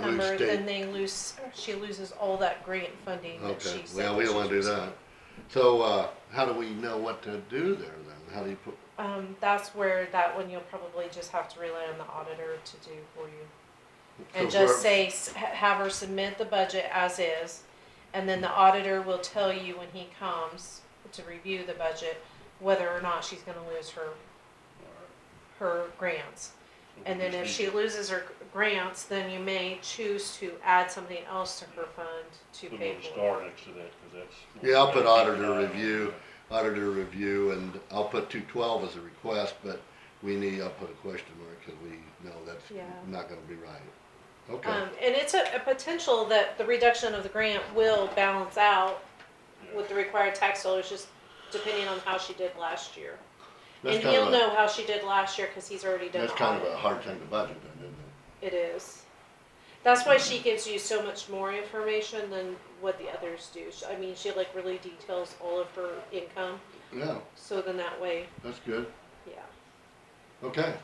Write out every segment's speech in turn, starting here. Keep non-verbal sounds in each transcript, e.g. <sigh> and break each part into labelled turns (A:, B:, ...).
A: number,
B: state.
A: then they lose, she loses all that grant funding that
B: Okay,
A: she said.
B: well, we
A: that
B: don't
A: she
B: wanna do
A: was
B: that. So, uh, how do we know what to do there then? How do you put,
A: gonna- Um, that's where, that one you'll probably just have to rely on the auditor to do for you. And
B: So
A: just
B: where-
A: say, s- ha- have her submit the budget as is, and then the auditor will tell you when he comes to review the budget, whether or not she's gonna lose her, her grants. And then if she loses her grants, then you may choose to add something else to her fund to
C: Put a
A: pay
C: little
A: for.
C: star next to that, cause that's.
B: Yeah, I'll put auditor
C: Yeah.
B: review, auditor review, and I'll put two twelve as a request, but we need, I'll put a question mark, cause we know that's
A: Yeah.
B: not gonna be right.
A: it.
B: Okay,
A: Um, and it's a, a potential that the reduction of the grant will balance out with the required tax dollars, just depending on how she did last year. And
B: that's kind
A: he'll
B: of a,
A: know how she did last year, cause he's already done
B: that's
A: the
B: kind of a
A: audit.
B: hard thing to budget then, isn't it?
A: It is. That's why she gives you so much more information than what the others do. She- I mean, she like really details all of her income,
B: Yeah,
A: so then that way,
B: that's good,
A: yeah.
B: okay.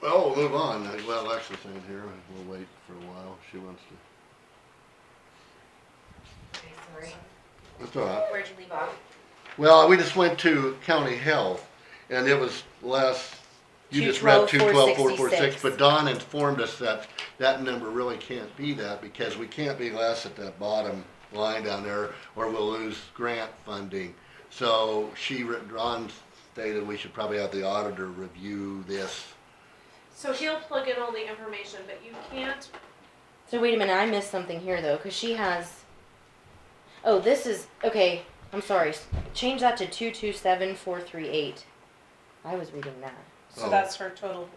B: Well, we'll move on, well, Alexa's in here, we'll wait for a while, she wants to,
D: Sorry,
B: that's all right.
D: where'd you leave off?
B: Well, we just went to county health, and it was last, you just read two twelve four four six,
D: 212,466.
B: but Don informed us that that number really can't be that, because we can't be less at that bottom line down there, or we'll lose grant funding. So she, re- Don stated we should probably have the auditor review this.
A: So he'll plug in all the information, but you can't,
D: So wait a minute, I missed something here though, because she has. Oh, this is okay. I'm sorry. s- Change that to two two seven four three eight. I was reading that.
A: so
B: Oh.
A: that's her total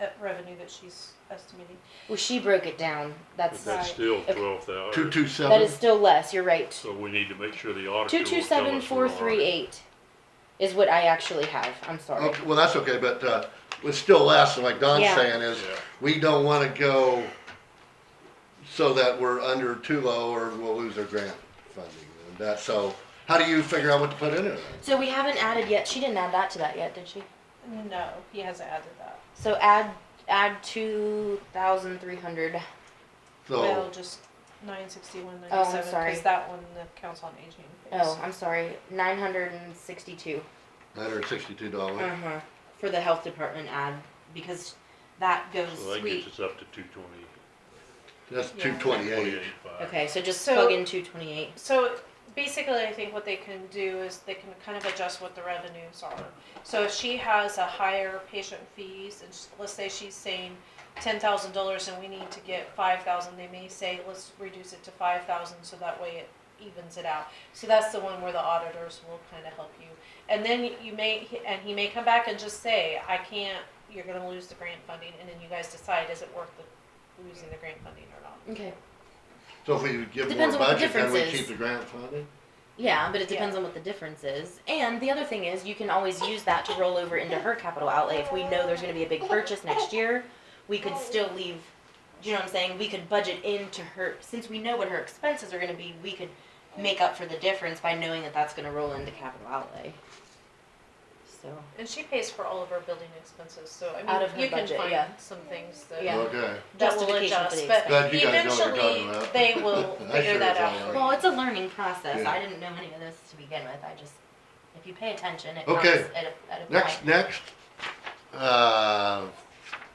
A: uh, revenue that she's estimating.
D: Well, she broke it down.
C: But
D: That's
A: Okay.
C: that's
A: Right.
C: still
D: Okay.
C: twelve thousand.
B: Two two
D: that
B: seven,
D: is still less. You're right.
C: So we need to make sure the auditor
D: Two
C: will
D: two
C: tell
D: seven
C: us we're
D: four
C: on
D: three
C: it.
D: eight is what I actually have. I'm sorry.
B: okay, well, that's okay, but, uh, it's still less, and like Don's
D: Yeah.
B: saying is,
C: Yeah.
B: we don't wanna go so that we're under too low or we'll lose our grant funding. And that, so how do you figure out what to put in it?
D: So we haven't added yet. She didn't add that to that yet, did she?
A: No, he hasn't added that.
D: So add add two thousand three hundred.
A: Well,
B: So,
A: just nine sixty-one
D: Oh, I'm
A: ninety-seven,
D: sorry.
A: cause that one, the council on aging. pays.
D: Oh, I'm sorry. Nine hundred and sixty two.
B: nine hundred sixty-two dollars,
D: Uh-huh, for the health department ad, because that
C: So
D: goes,
C: that
D: we,
C: gets us up to two twenty,
B: that's
A: Yeah.
B: two twenty-eight.
C: twenty-eight five.
D: okay, so just
A: So-
D: plug in two twenty-eight.
A: So basically, I think what they can do is they can kind of adjust what the revenues are. So if she has a higher patient fees, and s- let's say she's saying ten thousand dollars and we need to get five thousand, they may say, let's reduce it to five thousand, so that way it evens it out. So that's the one where the auditors will kind of help you. And then you may, and he may come back and just say, I can't, you're gonna lose the grant funding, and then you guys decide, is it worth the, losing the grant funding or not?
D: Okay,
B: So if we give more
D: Depends on what the
B: budget, then we
D: difference is.
B: keep the grant funding?
D: yeah, but it
A: Yeah.
D: depends on what the difference is, and the other thing is, you can always use that to roll over into her capital outlay, if we know there's gonna be a big purchase next year, we could still leave, do you know what I'm saying, we could budget into her, since we know what her expenses are gonna be, we could make up for the difference by knowing that that's gonna roll into capital outlay. So,
A: And she pays for all of her building expenses, so I
D: Out of
A: mean,
D: her
A: you can
D: budget,
A: find
D: yeah.
A: some things that,
D: Yeah.
B: Okay,
A: that will
D: Justification for
A: adjust,
D: the
A: but
B: Glad you guys know what you're
A: eventually,
B: talking about.
A: they
B: <laughs>
A: will
B: I
A: figure
B: sure
A: that
B: as
A: out.
B: hell
D: Well, it's a learning process.
B: Yeah.
D: I didn't know any of this to begin with. I just, if you pay attention, it comes
B: Okay.
D: at a, at a
B: next,
D: point.
B: next, uh,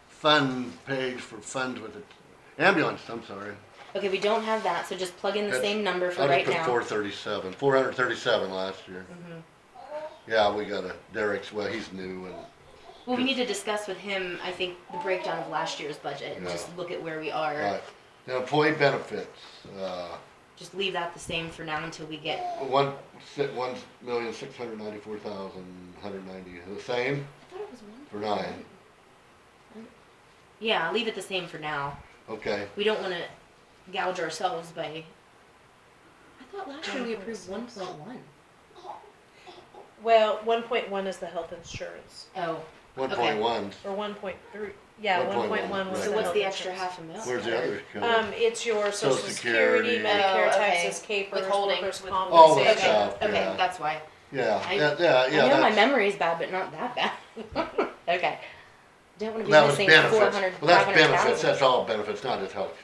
B: fund page for funds with the ambulance, I'm sorry.
D: Okay, we don't have that, so just plug in the
B: That's-
D: same number for
B: I just
D: right
B: put
D: now.
B: four thirty-seven, four hundred thirty-seven last year.
D: Mhm.
B: Yeah, we got a Derek's, well, he's new and
D: Well, we need to discuss with him, I think, the breakdown of last year's budget and
B: Yeah.
D: just look at where we are.
B: Right. Now, employee benefits, uh,
D: Just leave that the same for now until we get,
B: one, si- one million, six hundred ninety-four thousand, hundred ninety, the same
D: I thought it was one.
B: for nine,
D: Yeah, leave it the same for now.
B: okay.
D: We don't wanna gouge ourselves by. I thought last year we approved one
A: 1.6.
D: point one.
A: Well, one point one is the health insurance,
D: Oh,
B: One point one,
A: or one point three, yeah, one point
B: 1.1,
A: one was
B: right.
D: so
A: the
D: what's
A: health
D: the extra
A: insurance.
D: half a mil?
B: where's the other?
A: Um, it's your social
B: Social
A: security,
B: Security.
A: Medicare,
D: Oh, okay.
A: taxes, capers,
D: Withholding.
A: workers'
B: All the
A: compensation.
B: stuff,
D: Okay,
B: yeah.
D: that's why.
B: Yeah,
D: I-
B: yeah, yeah,
D: I know
B: yeah.
D: my
B: that's-
D: memory is bad, but not that bad. <laughs> okay. Don't want to be
B: That was
D: missing
B: benefits.
D: 400,
B: Well, that's
D: 500,000.
B: benefits, that's all benefits, not just health.